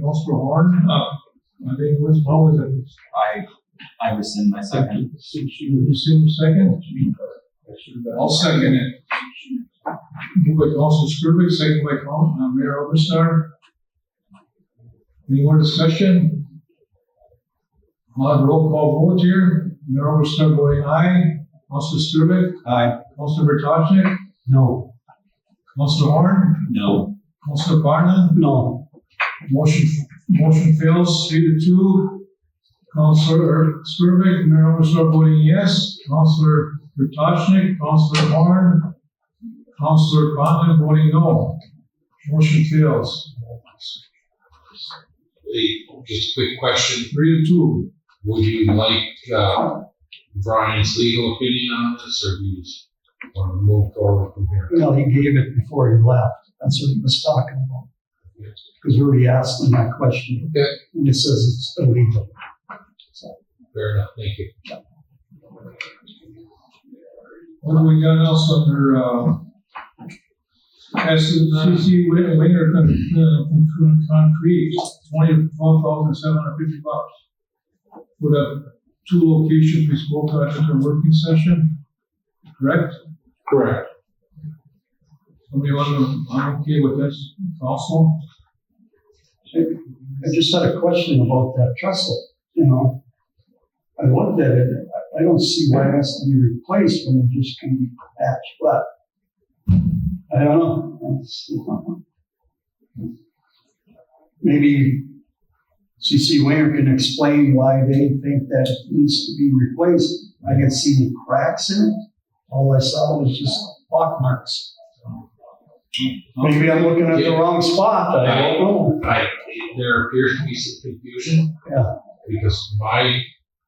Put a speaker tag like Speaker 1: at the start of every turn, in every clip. Speaker 1: Councilor Horn,
Speaker 2: Uh,
Speaker 1: I think it was always a,
Speaker 2: I, I rescind my second.
Speaker 1: you rescind second? I'll second it. Moved by Councilor Skrillex, second by Coun- uh, Mayor Overstar. Any more discussion? Mod roll call vote here, Mayor Overstar voting aye, Councilor Skrillex,
Speaker 2: Aye.
Speaker 1: Councilor Bertocci,
Speaker 2: No.
Speaker 1: Councilor Horn,
Speaker 2: No.
Speaker 1: Councilor Barna,
Speaker 2: No.
Speaker 1: Motion, motion fails, three to two. Counselor Skirvin, Mayor Overstar voting yes. Counselor Vrtachnik, Counselor Horn, Counselor Conlon voting no. Motion fails,
Speaker 3: Hey, just a quick question.
Speaker 1: three to two.
Speaker 3: Would you like, uh, Brian's legal opinion on this or do you just want to move forward from here?
Speaker 4: Well, he gave it before he left. That's what he was talking about. Because we already asked him that question.
Speaker 3: Okay.
Speaker 4: And it says it's illegal.
Speaker 3: Fair enough, thank you.
Speaker 1: What do we got else under, uh, SCC win- winner con- uh, con- concrete, twenty, twelve thousand seven hundred fifty bucks. For the two locations we spoke about at the working session, correct?
Speaker 3: Correct.
Speaker 1: Somebody want to, I'm okay with this also.
Speaker 4: I just had a question about that trestle, you know? I looked at it, I- I don't see why it has to be replaced when it just can be patched, but I don't know. It's- Maybe CC Winger can explain why they think that it needs to be replaced. I can see the cracks in it. All I saw was just block marks. Maybe I'm looking at the wrong spot, I don't know.
Speaker 3: I, there appears to be some confusion.
Speaker 4: Yeah.
Speaker 3: Because my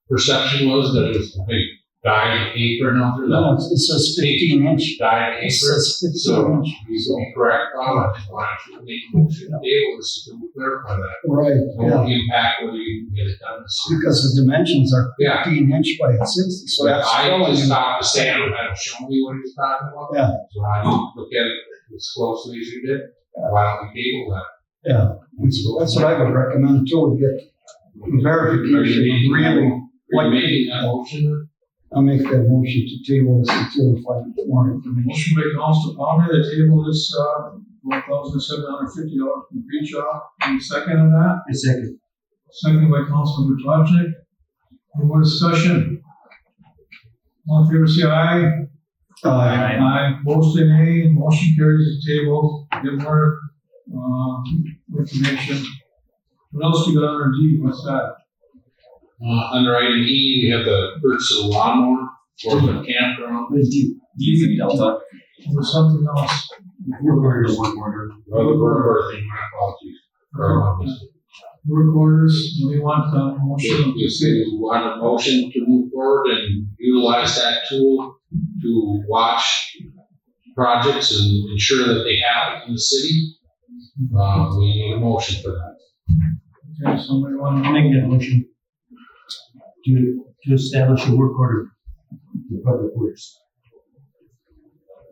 Speaker 3: perception was that it was a big dyed apron out there.
Speaker 4: No, it's- it says fifteen inch.
Speaker 3: Dyed
Speaker 4: It
Speaker 3: apron.
Speaker 4: says fifteen
Speaker 3: So
Speaker 4: inch.
Speaker 3: you can be correct on it. Why don't you make a motion to table this to clarify that?
Speaker 4: Right,
Speaker 3: It
Speaker 4: yeah,
Speaker 3: won't impact whether you can get it done this year.
Speaker 4: because the dimensions are
Speaker 3: Yeah.
Speaker 4: fifteen inch by sixty, so
Speaker 3: But
Speaker 4: that's
Speaker 3: I
Speaker 4: telling
Speaker 3: just
Speaker 4: you.
Speaker 3: stopped to say, I don't have to show me what he's talking about.
Speaker 4: Yeah.
Speaker 3: So I don't look at it as closely as you did. Why don't we table that?
Speaker 4: Yeah, it's- that's what I would recommend too, we get verification,
Speaker 3: Are you making-
Speaker 4: really.
Speaker 3: Are
Speaker 4: Like-
Speaker 3: you making that motion?
Speaker 4: I'll make that motion to table this until we find more information.
Speaker 1: Motion by Council Palmer to table this, uh, one thousand seven hundred fifty dollar complete job. Any second on that?
Speaker 4: A second.
Speaker 1: Second by Council Matarchik. Any more discussion? All in favor, say aye.
Speaker 4: Uh,
Speaker 1: Aye. Opposed, say nay. Motion carries the table. Get more, um, information. What else we got under D? What's that?
Speaker 3: Uh, under item E, we have the purchase of lawnmower for the campground.
Speaker 2: DZ Delta.
Speaker 1: Or something else?
Speaker 3: Or the burger thing, my apologies. Or, um,
Speaker 1: Work orders, we want uh, a motion.
Speaker 3: If you want a motion to move forward and utilize that tool to watch projects and ensure that they happen in the city, uh, we need a motion for that.
Speaker 1: Okay, somebody want to?
Speaker 5: Make that motion to, to establish a work order for public works.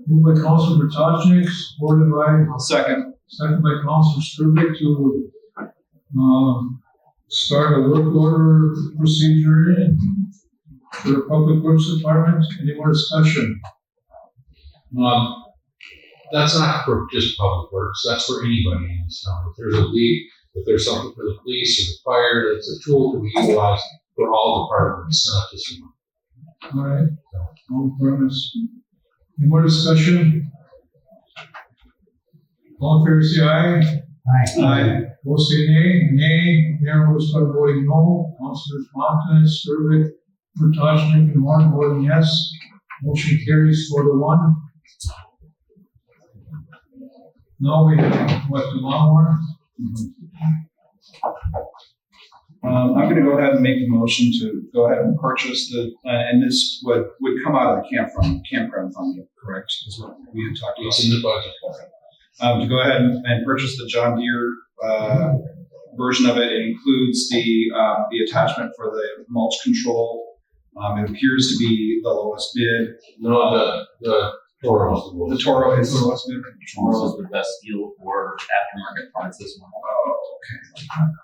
Speaker 1: Moved by Councilor Vrtajnik, supported by. Second. Second by Councilor Skrillex to, um, start a work order procedure for the Public Works Department. Any more discussion?
Speaker 3: Um, that's not for just public works, that's for anybody in this town. If there's a leak, if there's something for the police or the fire, that's a tool to be utilized for all departments, not just one.
Speaker 1: All right, all permits. Any more discussion? All in favor, say aye. Opposed, say nay. Nay, Mayor will start voting no. Councilors Montanez, Skrillex, Vrtajnik, and Warren voting yes. Motion carries four to one. Now we have, what, the lawnmower?
Speaker 6: Um, I'm gonna go ahead and make the motion to go ahead and purchase the, uh, and this would, would come out of the campground, campground fund, correct? Is what we had talked
Speaker 3: It's in the budget.
Speaker 6: about. Um, to go ahead and, and purchase the John Deere, uh, version of it. It includes the, uh, the attachment for the mulch control. Um, it appears to be the lowest bid.
Speaker 3: No, the, the Toro's the
Speaker 6: The
Speaker 3: lowest.
Speaker 6: Toro is the lowest bid.
Speaker 2: Charles is the best deal for aftermarket parts this one.
Speaker 6: Oh,